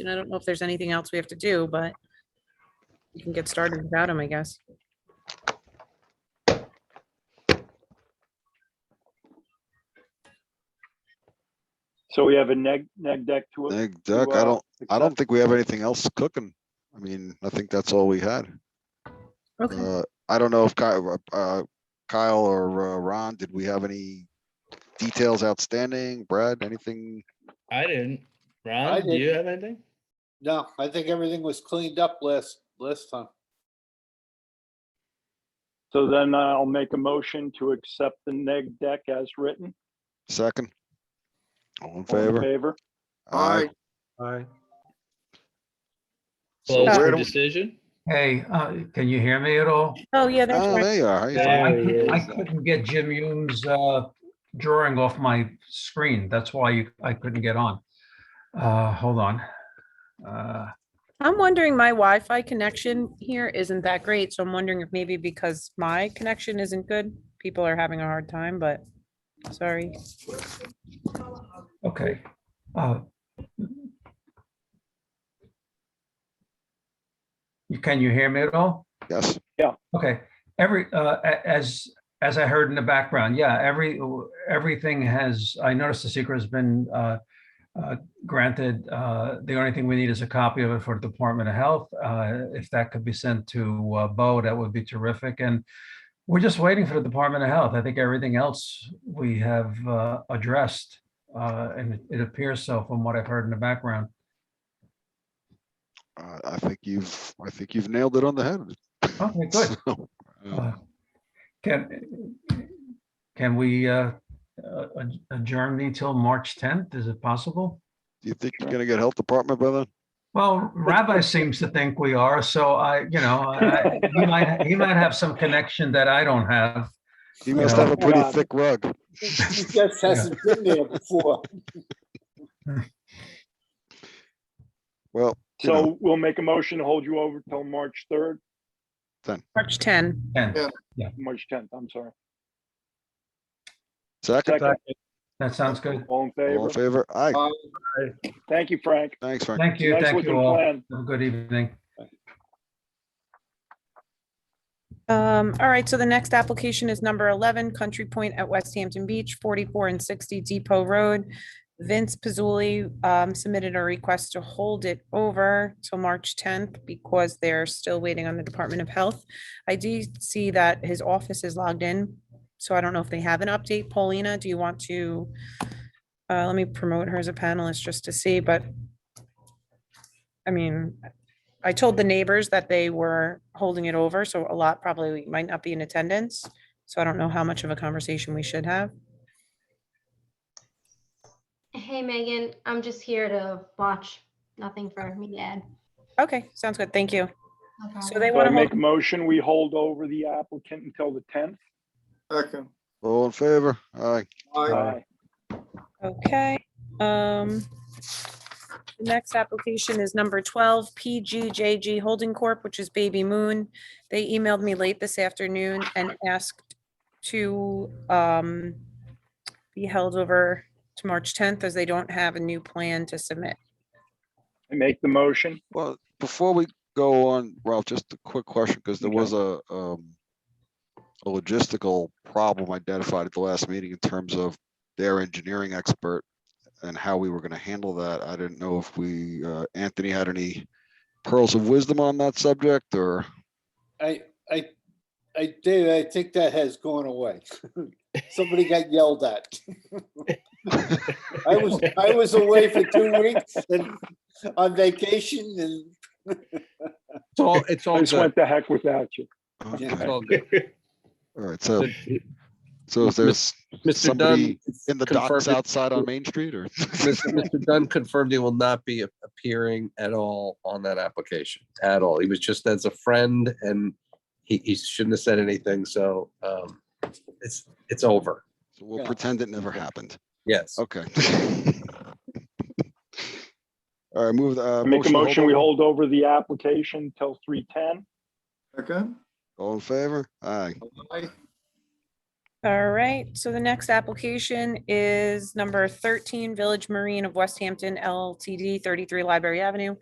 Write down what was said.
And I don't know if there's anything else we have to do, but you can get started without them, I guess. So we have a neg, neg deck to. to, Neg deck, I uh, don't, I don't accept. think we have anything else cooking. I mean, I think that's all we had. Okay, Uh, I don't know if Kyle, uh, Kyle or uh, Ron, did we have any details outstanding? Brad, anything? I didn't. Ron, do you didn't. have anything? No, I think everything was cleaned up last, last time. So then I'll make a motion to accept the neg deck as written. Second? All in All in favor? Favor. Aye. Aye. So where Close for do, we- decision? Hey, uh, can you hear me at all? oh, yeah, that's oh, right. there you are. How you doing? There I he couldn't- I is. couldn't get Jim Hume's uh, drawing off my screen. That's why you- I couldn't get on. Uh, Hold on. Uh, I'm wondering, my Wi-Fi connection here isn't that great, so I'm wondering if maybe because my connection isn't good, people are having a hard time, but sorry. Okay. Uh, you- Can you hear me at all? Yes, Okay, every, uh, a- as, as I heard in the background, yeah, every, everything has, I noticed the secret has been uh, uh, granted. Uh, The only thing we need is a copy of it for the Department of Health. Uh, If that could be sent to uh, Bo, that would be terrific. And we're just waiting for the Department of Health. I think everything else we have uh, addressed. uh, And it- it appears so from what I've heard in the background. uh, I think you've, I think you've nailed it on the head. Okay, good. So, uh, Uh, Can, can we uh, uh, ad- adjourn me till March 10th? Is it possible? Do you think you're gonna get health department by then? Well, Rabbi seems to think we are, so I, you know, I- I- he might, he might have some connection that I don't have. He must have a pretty Yeah. thick rug. He just hasn't been there before. Well, you know, So we'll make a motion to hold you over till March third, March 10. And Yeah. March tenth, I'm sorry. second, Second, that sounds good. all in all in favor. favor? Aye, Uh, Thank you, Frank. thanks, Frank. Thank you, Nice thank looking you all. plan. Have a good evening. Um, all right, so the next application is number eleven, Country Point at West Hampton Beach, forty-four and sixty Depot Road. Vince Pizzoli, um, submitted a request to hold it over till March tenth because they're still waiting on the Department of Health. I do see that his office is logged in, so I don't know if they have an update. Paulina, do you want to? Uh, let me promote her as a panelist just to see, but I mean, I told the neighbors that they were holding it over, so a lot probably might not be in attendance. So I don't know how much of a conversation we should have. Hey Megan, I'm just here to watch, nothing for me to add. Okay, sounds good. Thank you. So they So I want make a to, motion, we hold over the applicant until the tenth. Second. All in favor? Aye. Aye. okay. um, The next application is number 12, PGJG Holding Corp., which is Baby Moon. They emailed me late this afternoon and asked to um, be held over to March 10th as they don't have a new plan to submit. I make the motion. Well, before we go on, Ralph, just a quick question, because there Okay. was a, um, a logistical problem identified at the last meeting in terms of their engineering expert and how we were gonna handle that. I didn't know if we, uh, Anthony had any pearls of wisdom on that subject or, I, I, I, David, I think that has gone away. Somebody got yelled at. I was, I was away for two weeks and on vacation and It's all, it's I all just good. went the heck without you. Yeah. It's Okay, all good. all right, so, so is there's Mr. Dunn. somebody in the docks confirmed- outside on Main Street or? Mr. Dunn confirmed he will not be a- appearing at all on that application, at all. He was just as a friend and he, he shouldn't have said anything, so, um, it's, it's over. So We'll Yeah. pretend it never happened. Yes. Okay. All right, move, the, uh. I make a to motion, we over. hold over the application till three ten. All in favor? Aye. All right, so the next application is number thirteen Village Marine of West Hampton LTD, thirty-three Library Avenue.